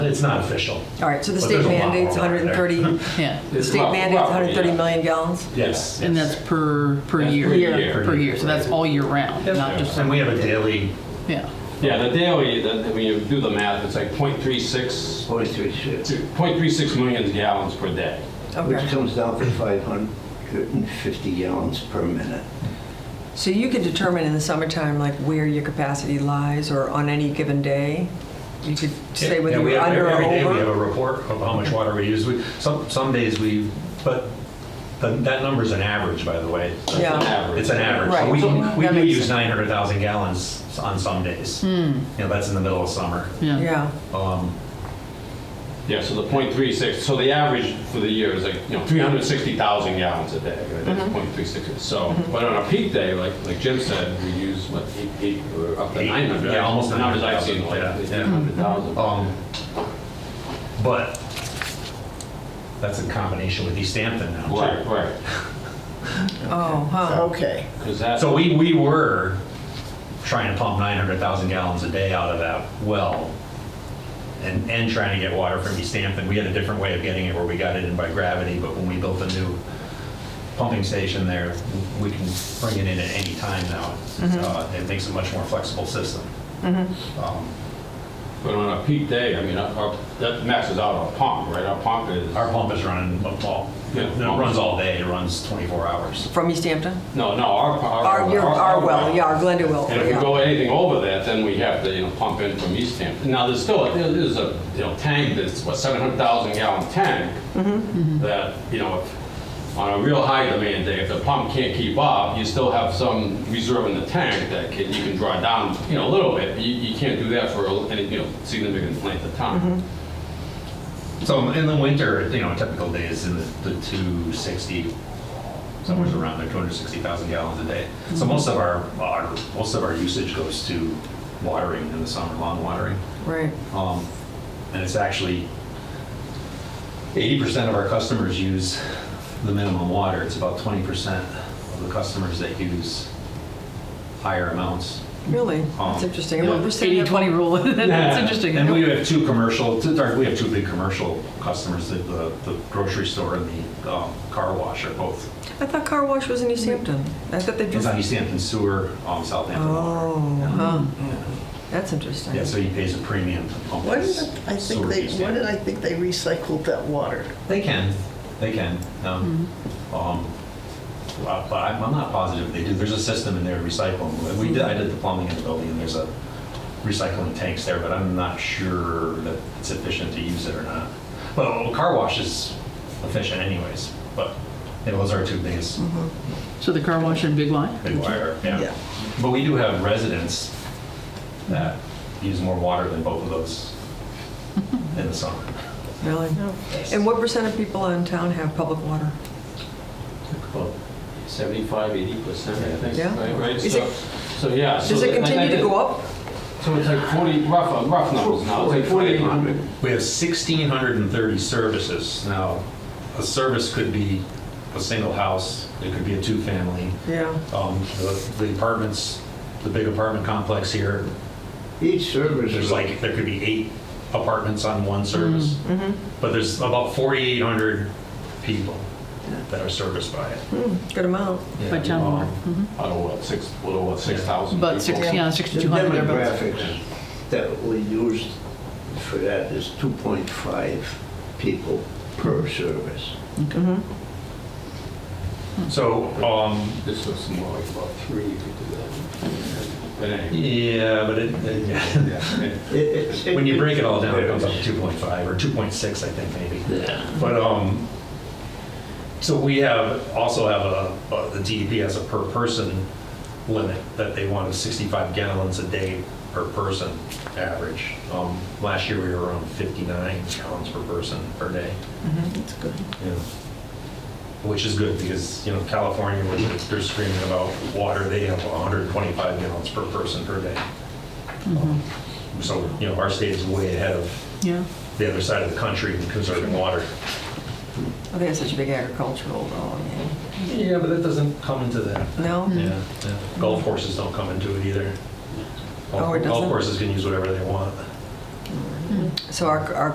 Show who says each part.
Speaker 1: It's not official.
Speaker 2: All right, so the
Speaker 1: But
Speaker 2: state
Speaker 1: there's a lot
Speaker 2: mandates
Speaker 1: more out
Speaker 2: 130,
Speaker 3: Yeah,
Speaker 2: the
Speaker 4: It's
Speaker 2: state
Speaker 4: rough-
Speaker 2: mandates
Speaker 4: roughly,
Speaker 2: 130
Speaker 4: yeah.
Speaker 2: million gallons?
Speaker 1: Yes.
Speaker 3: and that's per, per
Speaker 4: That's
Speaker 3: year.
Speaker 4: per year.
Speaker 3: Per year, so that's all year round,
Speaker 1: Yep.
Speaker 3: not just,
Speaker 1: And we have a daily,
Speaker 3: yeah.
Speaker 4: Yeah, the daily, the- when you do the math, it's like 0.36,
Speaker 5: Forty-three shifts,
Speaker 4: to 0.36 million gallons per day.
Speaker 5: which
Speaker 2: Okay,
Speaker 5: comes down to 550 gallons per minute.
Speaker 2: so you can determine in the summertime, like, where your capacity lies, or on any given day? You could say
Speaker 1: Yeah,
Speaker 2: whether
Speaker 1: we
Speaker 2: you're
Speaker 1: have-
Speaker 2: under or
Speaker 1: Every day we have a
Speaker 2: over?
Speaker 1: report of how much water we use. We- Some, some days we, but but that number's an average, by the way.
Speaker 2: Yeah.
Speaker 4: It's an average.
Speaker 1: It's an average. So
Speaker 2: Right. So
Speaker 1: we, we
Speaker 2: that
Speaker 1: do
Speaker 2: makes Hmm.
Speaker 1: use 900,000 gallons on some days. You know, that's in the middle of summer.
Speaker 2: Yeah,
Speaker 1: Um,
Speaker 4: Yeah, so the .36, so the average for the year is like, you know, 360,000 gallons a day, right? That's
Speaker 2: Mm-hmm.
Speaker 4: .36. So, but on a peak day, like, like Jim said, we use, what, eight, eight, or up to
Speaker 1: Eight,
Speaker 4: 900?
Speaker 1: yeah, almost
Speaker 4: The numbers I've seen,
Speaker 1: 900,000,
Speaker 4: like
Speaker 1: yeah, yeah.
Speaker 4: 800,000.
Speaker 1: Um, But that's in combination with East Hampton now. too.
Speaker 4: Right, right.
Speaker 2: oh, huh,
Speaker 6: Okay.
Speaker 4: Because that,
Speaker 1: So we, we were trying to pump 900,000 gallons a day out of that well and, and trying to get water from East Hampton. We had a different way of getting it where we got it in by gravity, but when we built a new pumping station there, we can bring it in at any time now. Uh, It makes a much more flexible system. Um,
Speaker 4: but on a peak day, I mean, our- our- that maxes out our pump, right? Our pump is,
Speaker 1: Our pump is running, all
Speaker 4: Yeah.
Speaker 1: it runs all day, it runs 24 hours.
Speaker 2: from East Hampton?
Speaker 4: no, no, our.
Speaker 2: Our, your, our well, yeah, our Glenda well,
Speaker 4: And if we
Speaker 2: yeah.
Speaker 4: go anything over that, then we have to, you know, pump in from East Hampton. Now, there's still, a- there's a, you know, tank that's, what, 700,000 gallon tank
Speaker 2: Mm-hmm.
Speaker 4: that, you know, if- on a real high demand day, if the pump can't keep up, you still have some reserve in the tank that can, you can draw down, you know, a little bit. You, you can't do that for any, you know, significant length of time.
Speaker 2: Mm-hmm.
Speaker 1: So in the winter, you know, a typical day is in the, the 260, somewhere around there, 260,000 gallons a day. So most of our, our, most of our usage goes to watering in the summer, lawn watering.
Speaker 2: Right,
Speaker 1: Um, and it's actually 80% of our customers use the minimum water. It's about 20% of the customers that use higher amounts.
Speaker 2: really? That's interesting. What percent
Speaker 3: Eighty
Speaker 2: of-
Speaker 3: twenty rule, that's interesting.
Speaker 1: And we have two commercial, two- sorry, we have two big commercial customers, the, the the grocery store and the um, car wash are both.
Speaker 2: I thought car wash was in East Hampton. I thought they
Speaker 1: It's
Speaker 2: just,
Speaker 1: on East Hampton Sewer, um, Southampton
Speaker 2: oh,
Speaker 1: Water.
Speaker 2: huh,
Speaker 1: Mm-hmm.
Speaker 2: that's interesting.
Speaker 1: Yeah, so he pays a premium to pump
Speaker 6: Why did
Speaker 1: his
Speaker 6: I think
Speaker 1: sewer
Speaker 6: they,
Speaker 1: East
Speaker 6: why did
Speaker 1: Hampton.
Speaker 6: I think they recycled that water?
Speaker 1: They can, they can. um, um, well, But I'm I'm not positive they do. There's a system in there recycling. We did, I did the plumbing in the building and there's a recycling tanks there, but I'm not sure that it's efficient to use it or not. Well, car wash is efficient anyways, but it was our two biggest
Speaker 3: So the car wash and Big Y?
Speaker 1: big wire, yeah.
Speaker 6: Yeah.
Speaker 1: But we do have residents that use more water than both of those in the summer.
Speaker 2: Really? And what percent of people in town have public water?
Speaker 4: 75, 80%, I think,
Speaker 2: Yeah.
Speaker 4: right? right?
Speaker 2: Is
Speaker 4: So,
Speaker 2: it-
Speaker 4: so, yeah. so
Speaker 2: Does it
Speaker 4: that- that-
Speaker 2: continue to
Speaker 4: that-
Speaker 2: go up?
Speaker 4: So it's like 40, rough, rough numbers now. It's like 4,800.
Speaker 1: We have 1,630 services. Now, a service could be a single house, it could be a two-family.
Speaker 2: Yeah.
Speaker 1: Um, The the apartments, the big apartment complex here,
Speaker 5: Each service
Speaker 1: there's
Speaker 5: is like,
Speaker 1: like, there could be eight apartments on one service. But there's about 4,800 people that are serviced by it.
Speaker 2: Good amount.
Speaker 3: By town water.
Speaker 1: Um,
Speaker 4: I don't know, what, six, a little, what, 6,000?
Speaker 3: About six,
Speaker 4: people?
Speaker 3: yeah,
Speaker 5: the
Speaker 3: 6,200 thereabouts.
Speaker 5: demographics that we used for that is 2.5 people per service.
Speaker 1: So, um,
Speaker 4: This looks more like about three if you do that. But anyway,
Speaker 1: yeah, but it- it,
Speaker 4: yeah.
Speaker 5: It- it's-
Speaker 1: When you break it all down, it comes up to 2.5 or 2.6, I think, maybe.
Speaker 5: Yeah.
Speaker 1: But, um, so we have, also have a, a- the DEP has a per person limit that they want is 65 gallons a day per person average. Um, Last year, we were around 59 gallons per person per day.
Speaker 6: That's good.
Speaker 1: Yeah. Which is good because, you know, California, where they're- they're screaming about water, they have 125 gallons per person per day. Um,
Speaker 2: Mm-hmm.
Speaker 1: So, you know, our state is way ahead of
Speaker 3: Yeah,
Speaker 1: the other side of the country in conserving water.
Speaker 2: Oh, they have such a big agricultural, um, though, I mean,
Speaker 1: Yeah, but that doesn't come into that.
Speaker 2: no?
Speaker 1: Yeah. Golf courses don't come into it either.
Speaker 2: Oh,
Speaker 1: Golf
Speaker 2: it doesn't?
Speaker 1: courses can use whatever they want.
Speaker 2: So our, our